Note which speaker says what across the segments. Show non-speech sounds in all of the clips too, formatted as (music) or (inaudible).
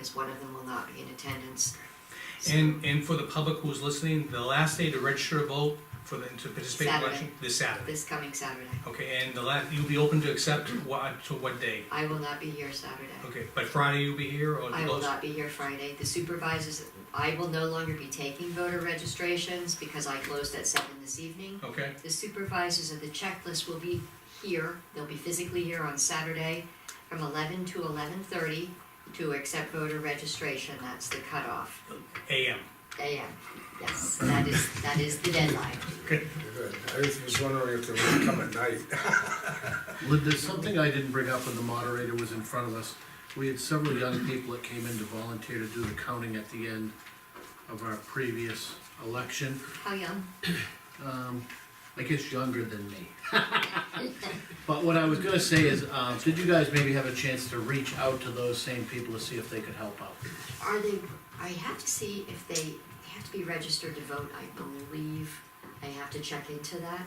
Speaker 1: because one of them will not be in attendance. So,
Speaker 2: And, and for the public who's listening, the last day to register to vote for the, to participate in the
Speaker 1: Saturday.
Speaker 2: election, this Saturday.
Speaker 1: This coming Saturday.
Speaker 2: Okay, and the last, you'll be open to accept what, to what day?
Speaker 1: I will not be here Saturday.
Speaker 2: Okay, but Friday you'll be here or?
Speaker 1: I will
Speaker 2: those-
Speaker 1: not be here Friday. The supervisors, I will no longer be taking voter registrations because I closed at seven this evening.
Speaker 2: Okay,
Speaker 1: The supervisors of the checklist will be here, they'll be physically here on Saturday from eleven to eleven thirty to accept voter registration, that's the cutoff.
Speaker 2: AM.
Speaker 1: AM, yes, that is, that is the deadline.
Speaker 3: Good. I was just wondering if they would come at night.
Speaker 4: Lynn, there's something I didn't bring up when the moderator was in front of us. We had several young people that came in to volunteer to do the counting at the end of our previous election.
Speaker 1: How young?
Speaker 4: Um, I guess younger than
Speaker 1: (laughs)
Speaker 4: me. But what I was gonna say is, um, did you guys maybe have a chance to reach out to those same people to see if they could help out?
Speaker 1: Are they, I have to see if they, they have to be registered to vote, I believe. I have to check into that.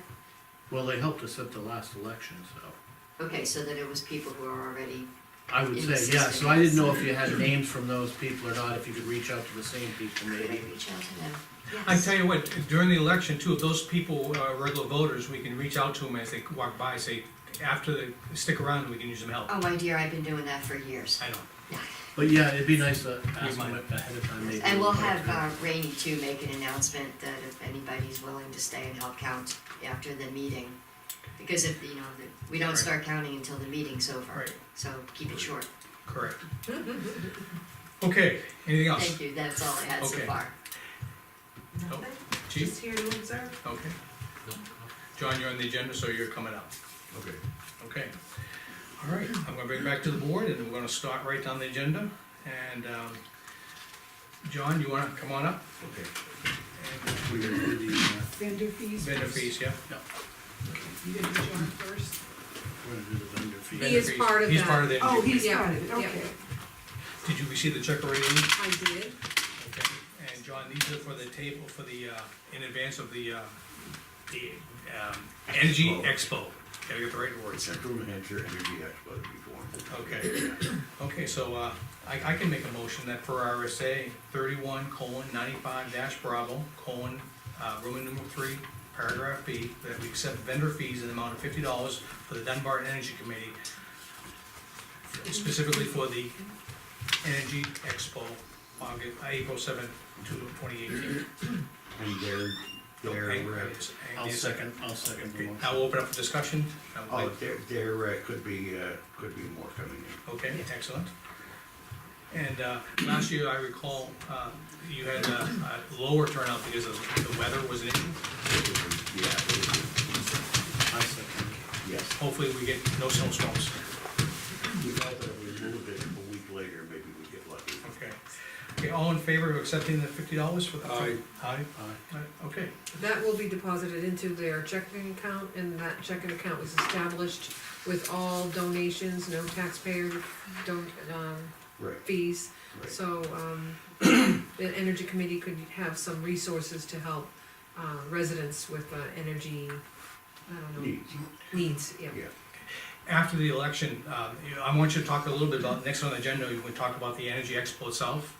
Speaker 4: Well, they helped us at the last election, so.
Speaker 1: Okay, so then it was people who are already,
Speaker 4: I would say, yeah, so I didn't know if you had names from those people or not, if you could reach out to the same people
Speaker 1: could I
Speaker 4: maybe.
Speaker 1: reach out to them?
Speaker 2: I
Speaker 1: Yes.
Speaker 2: tell you what, during the election too, if those people are regular voters, we can reach out to them as they walk by, say, after they stick around, we can use some help.
Speaker 1: Oh, my dear, I've been doing that for years.
Speaker 2: I know.
Speaker 4: But yeah, it'd be nice to ask them
Speaker 2: mind.
Speaker 4: ahead of time maybe.
Speaker 1: And we'll have uh, Rainey too make an announcement that if anybody's willing to stay and help count after the meeting. Because if, you know, the- we don't
Speaker 2: Right.
Speaker 1: start counting until the meeting's over,
Speaker 2: Right.
Speaker 1: so keep it short. (laughs)
Speaker 2: Correct. Okay, anything else?
Speaker 1: Thank you, that's all I had so
Speaker 2: Okay.
Speaker 1: far.
Speaker 2: Oh,
Speaker 5: Nothing,
Speaker 2: Chief,
Speaker 5: just here to observe.
Speaker 2: okay. John, you're on the agenda, so you're coming up.
Speaker 3: Okay.
Speaker 2: Okay. All right, I'm gonna bring it back to the board, and we're gonna start right down the agenda. And, um, John, you wanna come on up?
Speaker 3: Okay.
Speaker 2: And
Speaker 4: We're gonna do the, uh,
Speaker 5: Vendor fees.
Speaker 2: Vendor fees, yeah?
Speaker 5: You gonna do John first?
Speaker 4: we're gonna do the vendor fee.
Speaker 2: Vendor
Speaker 6: is
Speaker 2: fees.
Speaker 6: part of
Speaker 2: He's
Speaker 6: that.
Speaker 2: part of the
Speaker 5: Oh,
Speaker 2: energy.
Speaker 5: he's
Speaker 6: Yeah,
Speaker 5: part of it,
Speaker 6: yeah.
Speaker 5: okay.
Speaker 2: Did you receive the check already? Lee?
Speaker 6: I did.
Speaker 2: Okay, and John, these are for the table, for the, uh, in advance of the, uh, the, um, Energy Expo. Gotta get the right words.
Speaker 7: Central New Hampshire Energy Expo to be formed.
Speaker 2: Okay, okay, so, uh, I, I can make a motion that for RSA thirty-one colon ninety-five dash Bravo colon, uh, Roman numeral three, paragraph B, that we accept vendor fees in the amount of fifty dollars for the Dunbar Energy Committee, specifically for the Energy Expo, August, April seventh, two, twenty eighteen.
Speaker 7: And their, their, uh,
Speaker 4: I'll second, I'll second the
Speaker 2: Okay,
Speaker 4: motion.
Speaker 2: I'll open up for discussion.
Speaker 7: oh, there, there uh, could be, uh, could be more coming in.
Speaker 2: Okay, excellent. And uh, last year, I recall, uh, you had a a lower turnout because of the weather was an issue.
Speaker 7: It would- Yeah, it would-
Speaker 4: I second.
Speaker 7: yes.
Speaker 2: Hopefully, we get no snowstorms.
Speaker 7: We thought that we moved it a week later, maybe we'd get lucky.
Speaker 2: Okay. Okay, all in favor of accepting the fifty dollars for the?
Speaker 3: Aye.
Speaker 2: Aye?
Speaker 4: Aye.
Speaker 2: Aye, Okay,
Speaker 6: That will be deposited into their checking account, and that checking account was established with all donations, no taxpayer don't, um,
Speaker 7: Right,
Speaker 6: fees.
Speaker 7: right.
Speaker 6: So, um, the energy committee could have some resources to help, uh, residents with, uh, energy, I don't know,
Speaker 7: Neat.
Speaker 6: needs, yeah.
Speaker 7: Yeah.
Speaker 2: after the election, um, you- I want you to talk a little bit about, next on the agenda, we talk about the Energy Expo itself.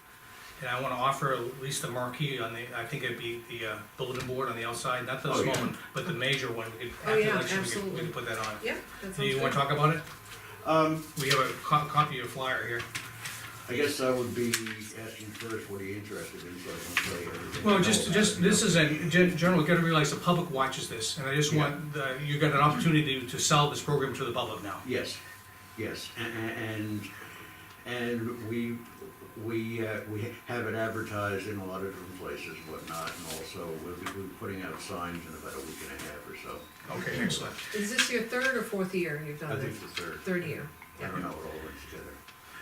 Speaker 2: And I wanna offer at least the marquee on the, I think it'd be the uh, bulletin board on the outside, not the
Speaker 7: Oh,
Speaker 2: small
Speaker 7: yeah.
Speaker 2: one, but the major one, we could,
Speaker 6: Oh,
Speaker 2: after the
Speaker 6: yeah,
Speaker 2: election, we could, we
Speaker 6: absolutely.
Speaker 2: could put that on.
Speaker 6: Yeah, that sounds
Speaker 2: Do you wanna
Speaker 6: good.
Speaker 2: talk about it?
Speaker 7: Um,
Speaker 2: We have a co- copy of your flyer here.
Speaker 7: I guess I would be asking first, what are you interested in, so I can say everything.
Speaker 2: Well, just, just, this is a, gen- general, you gotta realize the public watches this, and I just
Speaker 7: Yeah.
Speaker 2: want, the- you got an opportunity to- to sell this program to the public now.
Speaker 7: Yes, yes, a- a- and, and we, we, uh, we have it advertised in a lot of different places and whatnot, and also we'll be, we'll be putting out signs in about a week and a half or so.
Speaker 2: Okay, excellent.
Speaker 6: Is this your third or fourth year you've
Speaker 7: I
Speaker 6: done
Speaker 7: think
Speaker 6: this?
Speaker 7: the third,
Speaker 6: Third year,
Speaker 7: I
Speaker 6: Oh, yeah.
Speaker 7: don't know, it all went together.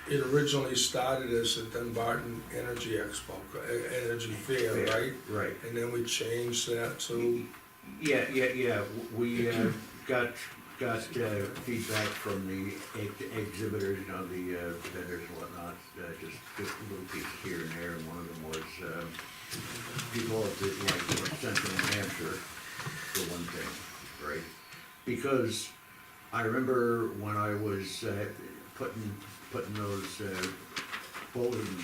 Speaker 3: It originally started as the Dunbarton Energy Expo, e- Energy Fair, right?
Speaker 7: Right,
Speaker 3: And then we changed that to,
Speaker 7: yeah, yeah, yeah, W- we, uh, got, got, uh, feedback from the ex- exhibitors, you know, the, uh, vendors and whatnot, uh, just, just little pieces here and there, and one of them was, um, people of the, like, North central New Hampshire, for one thing, right? Because I remember when I was, uh, putting, putting those, uh, bulletin